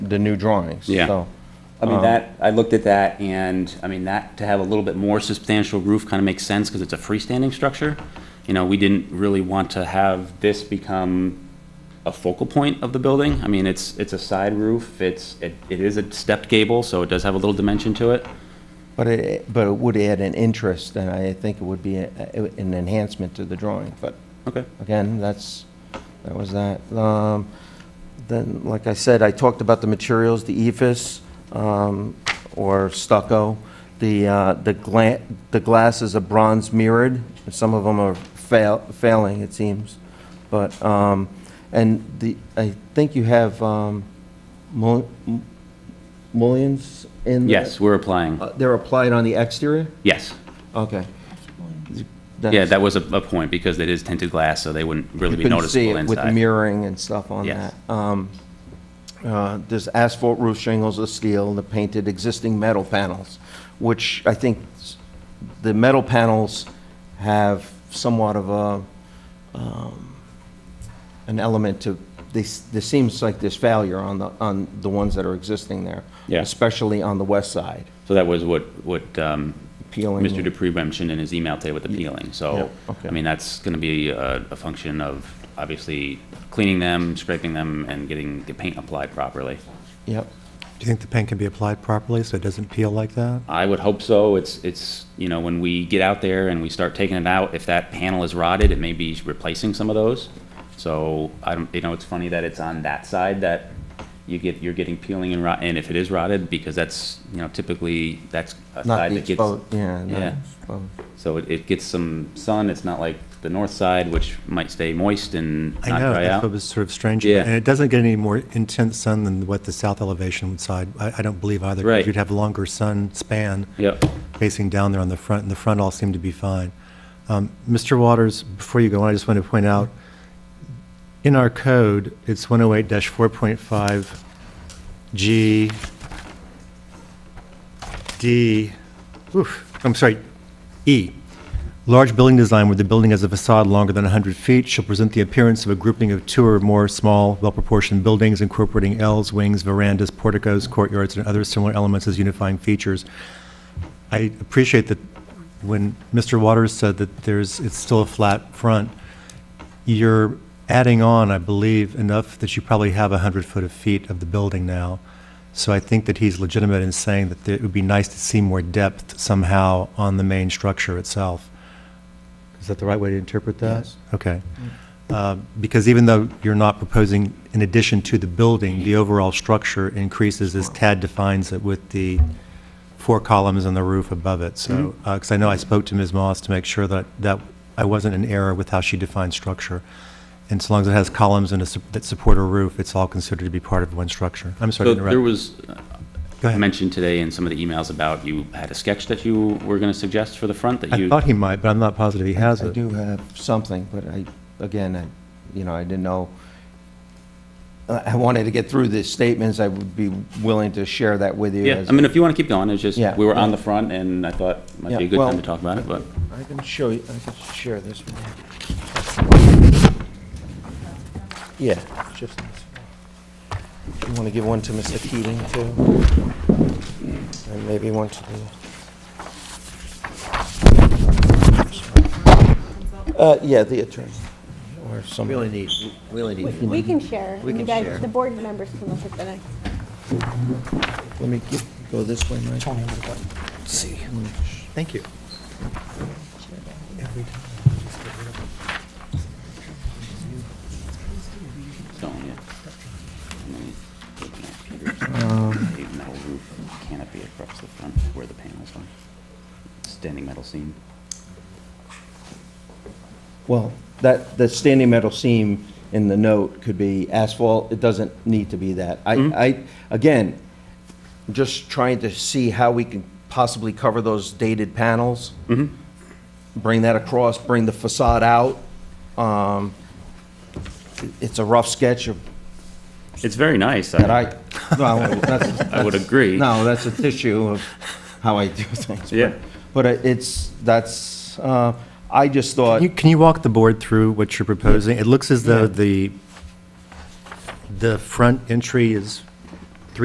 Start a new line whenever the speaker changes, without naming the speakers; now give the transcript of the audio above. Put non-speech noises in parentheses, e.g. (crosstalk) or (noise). the new drawings.
Yeah.
So, Um,
I mean, that, I looked at that, and, I mean, that, to have a little bit more substantial roof kind of makes sense, because it's a freestanding structure. You know, we didn't really want to have this become a focal point of the building. I mean, it's, it's a side roof, it's, it it is a stepped gable, so it does have a little dimension to it.
But it, but it would add an interest, and I think it would be a- a- an enhancement to the drawing, but
Okay.
again, that's, that was that. Um, Then, like I said, I talked about the materials, the E ephes, um, or stucco. The, uh, the gla, the glass is a bronze mirrored, some of them are fail, failing, it seems. But, um, and the, I think you have, um, mul- m- mullions in? the-
Yes, we're applying,
Uh, They're applied on the exterior?
yes.
Okay.
Yeah, that was a, a point, because it is tinted glass, so they wouldn't really be noticeable
You couldn't see it with
inside.
mirroring and stuff on
Yes.
that. Um, uh, There's asphalt roof shingles of steel, the painted existing metal panels, which I think s- the metal panels have somewhat of a, um, an element to, this, this seems like there's failure on the, on the ones that are existing there.
Yeah.
Especially on the west side,
So that was what, what, um,
peeling.
Mr. Dupree mentioned in his email today with the peeling, so,
Yeah, okay.
I mean, that's gonna be a, a function of obviously cleaning them, scraping them, and getting the paint applied properly.
Yep.
Do you think the paint can be applied properly so it doesn't peel like that?
I would hope so, it's, it's, you know, when we get out there and we start taking it out, if that panel is rotted, it may be replacing some of those. So, I don't, you know, it's funny that it's on that side that you get, you're getting peeling and rot, and if it is rotted, because that's, you know, typically, that's a
Not
side
the
that gets.
exposed, yeah. not
Yeah.
exposed.
So it, it gets some sun, it's not like the north side, which might stay moist and
I
not
know,
dry
that's what
out.
was sort of strange.
Yeah.
And it doesn't get any more intense sun than what the south elevation would side, I, I don't believe either. 'cause
Right.
You'd have longer sun span.
Yep.
Facing down there on the front, and the front all seemed to be fine. Um, Mr. Waters, before you go on, I just want to point out, in our code, it's 108-4.5 G, D, oof, I'm sorry, E. Large building design where the building has a facade longer than 100 feet shall present the appearance of a grouping of two or more small, well-proportioned buildings incorporating Ls, wings, verandas, porticos, courtyards, and other similar elements as unifying features. I appreciate that when Mr. Waters said that there's, it's still a flat front, you're adding on, I believe, enough that you probably have 100 foot of feet of the building now. So I think that he's legitimate in saying that it would be nice to see more depth somehow on the main structure itself. Is that the right way to interpret that?
Yes.
Okay. Uh, Because even though you're not proposing in addition to the building, the overall structure increases as Tad defines it with the four columns and the roof above it. So, because I know I spoke to Ms. Moss to make sure that, that I wasn't in error with how she defined structure. And so long as it has columns and a, sup- that support a roof, it's all considered to be part of one structure. I'm sorry
So
to interrupt.
there was uh,
Go ahead.
mentioned today in some of the emails about you had a sketch that you were gonna suggest for the front that
I
you.
thought he might, but I'm not positive he has
I
it.
do have something, but I, again, I, you know, I didn't know. I I wanted to get through the statements. I would be willing to share that with you.
Yeah,
as-
I mean, if you wanna keep going, it's just,
Yeah.
we were on the front and I thought it might be
Yeah,
a good
well-
time to talk about it, but.
I can show you, I can share this with you. Yeah, just, you want to give one to Mr. Keating too? And maybe one to the. Uh, yeah, the attorney, or somebody.
Really need, really need.
We can share.
We
You
can
guys-
share.
The board members can look at the next.
Let me get- go this way, Mike.
See. Thank you.
stone, yeah. And then he's looking at Peter's paved metal roof and canopy across the front where the panels are. Standing metal seam.
Well, that, the standing metal seam in the note could be asphalt, it doesn't need to be that. I,
Mm-hmm.
I, again, just trying to see how we can possibly cover those dated panels.
Mm-hmm.
Bring that across, bring the facade out. Um, It's a rough sketch of,
It's very nice.
that I, no, that's.
(laughs) I would agree.
No, that's a tissue of how I do things. but-
Yeah.
But uh, it's, that's, uh, I just thought.
Can you, can you walk the board through what you're proposing? It looks as though the, the front entry is